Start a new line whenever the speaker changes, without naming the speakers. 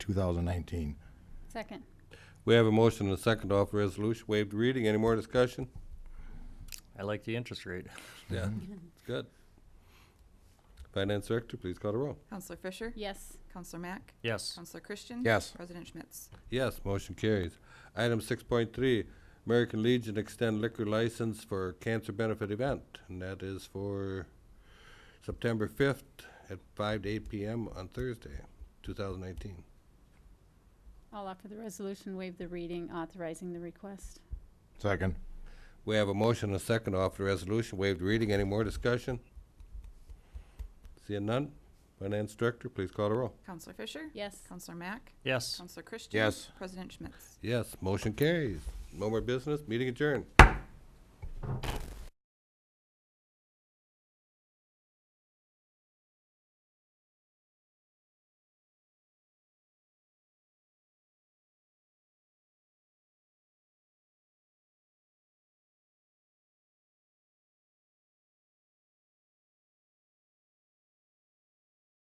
2019.
Second.
We have a motion and a second to offer resolution, waived reading. Any more discussion?
I like the interest rate.
Yeah, it's good. Finance Director, please call the roll.
Counselor Fisher?
Yes.
Counselor Mack?
Yes,
Counselor Christian?
Yes.
President Schmitz?
Yes, motion carries. Item six point three, American Legion extend liquor license for cancer benefit event, and that is for September fifth at five to eight PM on Thursday, two thousand nineteen.
I'll offer the resolution, waive the reading, authorizing the request.
Second.
We have a motion and a second to offer the resolution, waive the reading. Any more discussion? Seeing none? Finance Director, please call the roll.
Counselor Fisher?
Yes.
Counselor Mack?
yes.
Counselor Christian?
Yes.
President Schmitz?
Yes, motion carries. No more business, meeting adjourned.